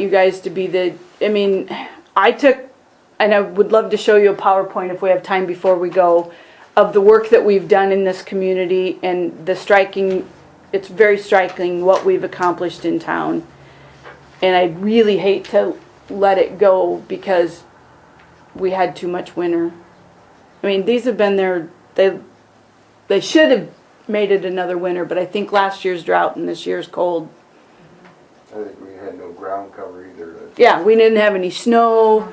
you guys to be the, I mean, I took, and I would love to show you a PowerPoint if we have time before we go, of the work that we've done in this community and the striking, it's very striking what we've accomplished in town. And I really hate to let it go because we had too much winter. I mean, these have been there, they, they should have made it another winter, but I think last year's drought and this year's cold I think we had no ground cover either. to- Yeah, we didn't have any snow.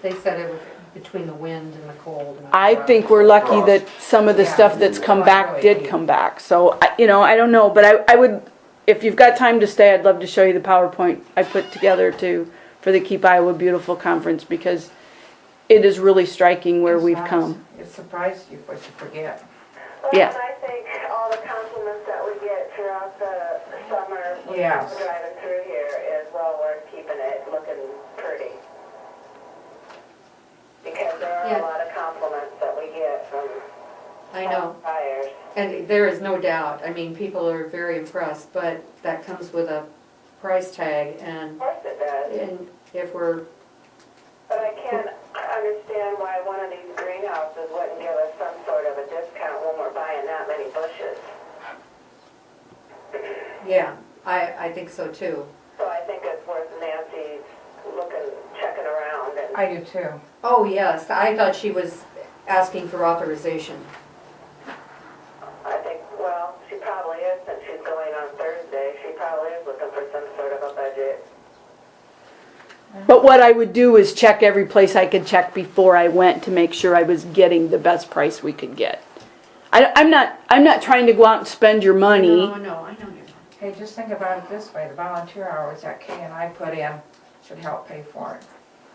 They said it was between the wind and the cold. and the I drought. think we're lucky that some of the stuff that's come back did come back. So, I- you know, I don't know, but I, I would, if you've got time to stay, I'd love to show you the PowerPoint I put together to, for the Keep Iowa Beautiful Conference because it is really striking where we've come. It surprised you what you forget. Well, Yeah. and I think all the compliments that we get throughout the summer when Yes. people driving through here is, well, we're keeping it looking pretty. Because there are Yeah. a lot of compliments that we get from I know, buyers. and there is no doubt, I mean, people are very impressed, but that comes with a price tag, Of and, course it does. and if we're, But I can't understand why one of these greenhouses wouldn't give us some sort of a discount when we're buying that many bushes. yeah, I, I think so too. So I think it's worth Nancy's looking, checking around and. I do too. Oh, yes, I thought she was asking for authorization. I think, well, she probably is, since she's going on Thursday, she probably is looking for some sort of a budget. But what I would do is check every place I could check before I went to make sure I was getting the best price we could get. I, I'm not, I'm not trying to go out and spend your money. No, no, I know you're Hey, just think about it this way, the volunteer hours that Kay and I put in should help pay for it.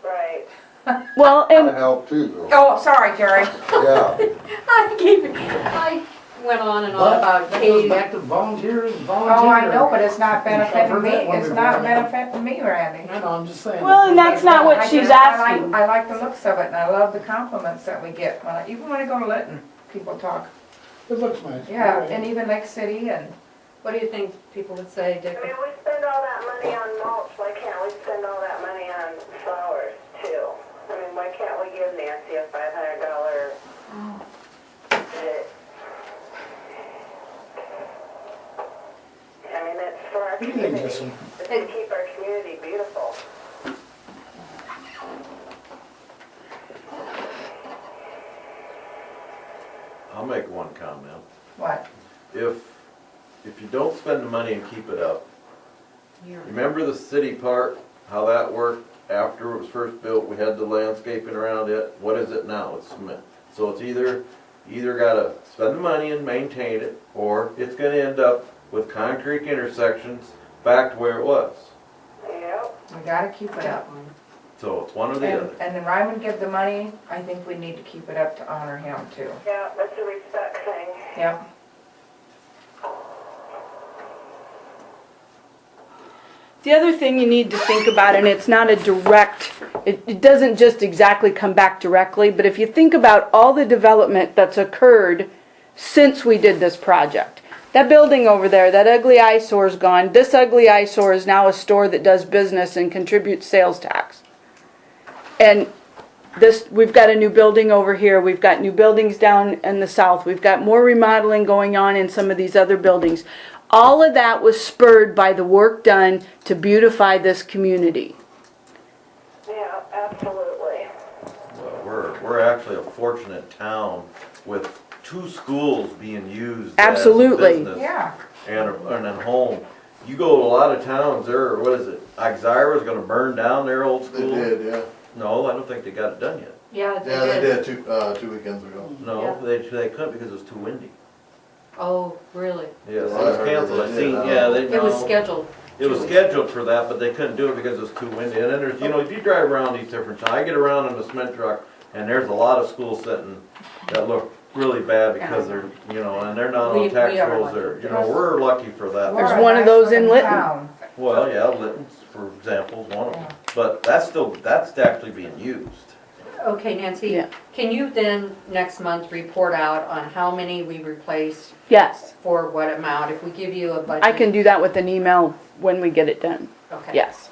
Right. Well, and That'd help too, though. Oh, sorry, Jerry. Yeah, not. I gave, I went on and on about That goes Katie. back to volunteers, volunteers. Oh, I know, but it's not benefiting me, I've heard that one it's not before. benefiting me, Randy. I know, I'm just saying. Well, and that's not I what she's just- I like- asking. I like the looks of it and I love the compliments that we get, when I- even when I go to Lytton, people talk. It looks nice. Yeah, and even Lake City and, What do you think people would say, I Dick? mean, we spend all that money on mulch, why can't we spend all that money on flowers too? I mean, why can't we give Nancy a five hundred dollar? I mean, it's for our What do you think, community, it's Jesse? to keep our community beautiful. I'll make one comment. what? If, if you don't spend the money and keep it up, You're- remember the city park, how that worked after it was first built, we had the landscaping around it, what is it now? It's cement. So it's either, either gotta spend the money and maintain it, or it's gonna end up with concrete intersections back to where it was. Yep, We gotta keep it up. So it's one or the And, other. and then Ryman give the money, I think we need to keep it up to honor him too. yeah, that's a respect thing. Yep. The other thing you need to think about, and it's not a direct, it, it doesn't just exactly come back directly, but if you think about all the development that's occurred since we did this project. That building over there, that ugly eyesore's gone. This ugly eyesore is now a store that does business and contributes sales tax. And this, we've got a new building over here, we've got new buildings down in the south, we've got more remodeling going on in some of these other buildings. All of that was spurred by the work done to beautify this community. Yeah, absolutely. Well, We're, we're actually a fortunate town with two schools being used as a Absolutely. business Yeah, and a, and a home. You go to a lot of towns, there, what is it, Ixira's gonna burn down their old They school? did, yeah. No, I don't think they got it done yet. Yeah, they did. Yeah, they did two, uh, two weekends ago. No, they, they couldn't because it was too windy. Oh, really? Yes, it Well, I was heard canceled, they I did, seen, uh, yeah, they, It was no. scheduled. It was scheduled for that, but they couldn't do it because it was too windy. And then there's, you know, if you drive around these different towns, I get around in the cement truck and there's a lot of schools sitting that look really bad because they're, you know, and they're not We- on tax we are rolls lucky. or, you know, we're lucky for that. We're a one of those nice in little Lytton. town. Well, yeah, Litton's, for example, is one of them, but that's still, that's actually being used. Okay, Nancy, Yeah. can you then, next month, report out on how many we replaced Yes, for what amount? If we give you a budget? I can do that with an email when we get it done, Okay. yes.